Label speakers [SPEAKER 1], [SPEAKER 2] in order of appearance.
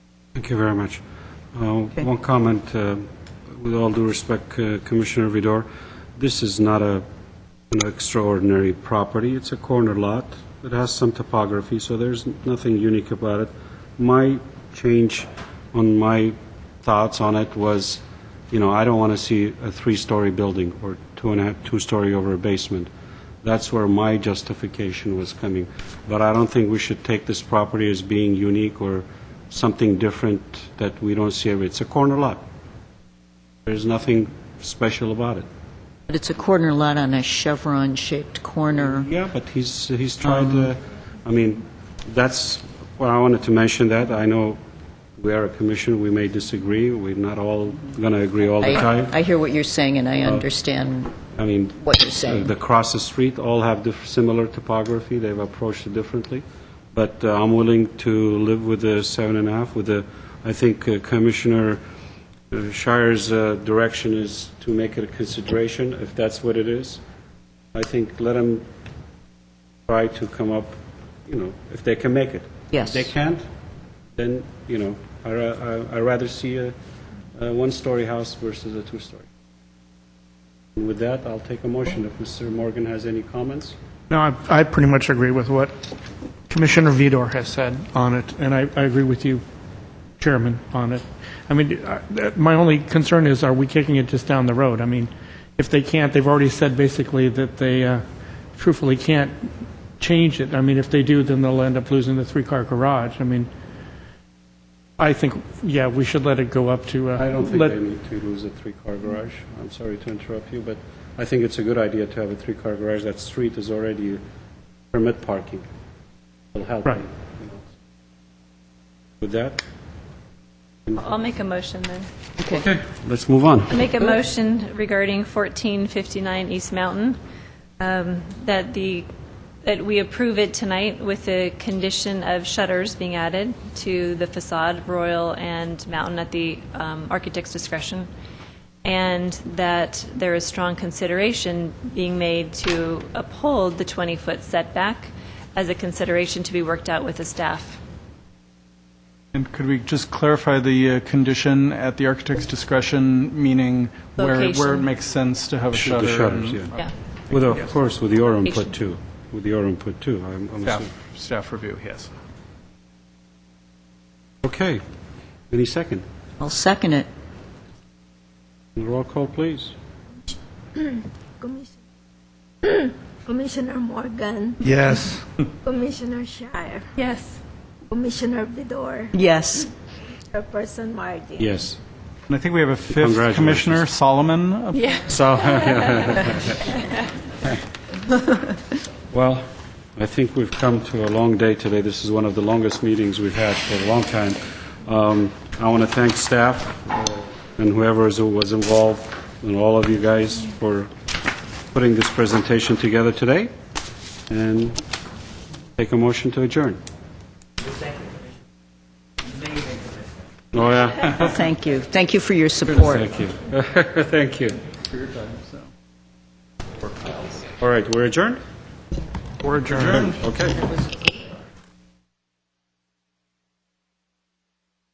[SPEAKER 1] Thank you very much. Uh, One comment, uh, with all due respect, uh, Commissioner Vidor, this is not a- an extraordinary property. It's a corner lot. It has some topography, so there's nothing unique about it. My change on my thoughts on it was, you know, I don't want to see a three-story building or two and a half, two-story over a basement. That's where my justification was coming. But I don't think we should take this property as being unique or something different that we don't see every, it's a corner lot. There's nothing special about it.
[SPEAKER 2] But it's a corner lot on a chevron-shaped corner.
[SPEAKER 1] Yeah, but he's, he's tried, uh, I mean, that's, well, I wanted to mention that. I know we are a commission, we may disagree, we're not all going to agree all the
[SPEAKER 2] I
[SPEAKER 1] time.
[SPEAKER 2] I hear what you're saying, and I understand
[SPEAKER 1] I mean,
[SPEAKER 2] what you're
[SPEAKER 1] uh,
[SPEAKER 2] saying.
[SPEAKER 1] the cross the street all have diff- similar topography, they've approached it differently, but uh, I'm willing to live with the seven and a half, with the, I think uh, Commissioner uh, Shire's uh, direction is to make it a consideration, if that's what it is. I think let them try to come up, you know, if they can make it.
[SPEAKER 2] Yes.
[SPEAKER 1] If they can't, then, you know, I ra- I- I'd rather see a a one-story house versus a two-story. And With that, I'll take a motion if Mr. Morgan has any comments.
[SPEAKER 3] No, I, I pretty much agree with what Commissioner Vidor has said on it, and I, I agree with you, Chairman, on it. I mean, I- that- my only concern is, are we kicking it just down the road? I mean, if they can't, they've already said basically that they uh, truthfully can't change it. I mean, if they do, then they'll end up losing the three-car garage. I mean, I think, yeah, we should let it go up to... uh,
[SPEAKER 1] I don't think
[SPEAKER 3] let-
[SPEAKER 1] they need to lose a three-car garage. I'm sorry to interrupt you, but I think it's a good idea to have a three-car garage. That street is already permit parking. It'll help.
[SPEAKER 3] Right.
[SPEAKER 1] you know. With that,
[SPEAKER 4] I'll make a motion then.
[SPEAKER 2] Okay.
[SPEAKER 1] let's move on.
[SPEAKER 4] I Make a motion regarding 1459 East Mountain, um, that the, that we approve it tonight with the condition of shutters being added to the facade, Royal and Mountain, at the um, architect's discretion, and that there is strong consideration being made to uphold the 20-foot setback as a consideration to be worked out with the staff.
[SPEAKER 5] And could we just clarify the uh, condition at the architect's discretion, meaning where, where it
[SPEAKER 4] Location.
[SPEAKER 5] makes sense to have a
[SPEAKER 1] Shoot
[SPEAKER 5] shutter?
[SPEAKER 1] The shutters,
[SPEAKER 5] and-
[SPEAKER 1] yeah.
[SPEAKER 4] Yeah.
[SPEAKER 1] With, of course, with your input
[SPEAKER 4] Patient.
[SPEAKER 1] too, with your input too, I'm I'm assuming.
[SPEAKER 5] Staff, staff review, yes.
[SPEAKER 1] Okay, any second?
[SPEAKER 2] I'll second it.
[SPEAKER 1] Roll call, please.
[SPEAKER 6] Commissioner Commissioner Morgan,
[SPEAKER 3] Yes.
[SPEAKER 6] Commissioner Shire,
[SPEAKER 4] Yes.
[SPEAKER 6] Commissioner Vidor,
[SPEAKER 2] Yes.
[SPEAKER 6] Chairperson Martin.
[SPEAKER 1] Yes.
[SPEAKER 5] And I think we have a fifth
[SPEAKER 1] Congratulations.
[SPEAKER 5] commissioner, Solomon. up-
[SPEAKER 1] So, well, I think we've come to a long day today. This is one of the longest meetings we've had for a long time. Um, I want to thank staff uh, and whoever is- was involved, and all of you guys for putting this presentation together today, and take a motion to adjourn. Oh, yeah,
[SPEAKER 2] Well, thank you. Thank you for your support.
[SPEAKER 1] thank you. Thank you. All right, we're adjourned?
[SPEAKER 3] We're adjourned.
[SPEAKER 1] Okay.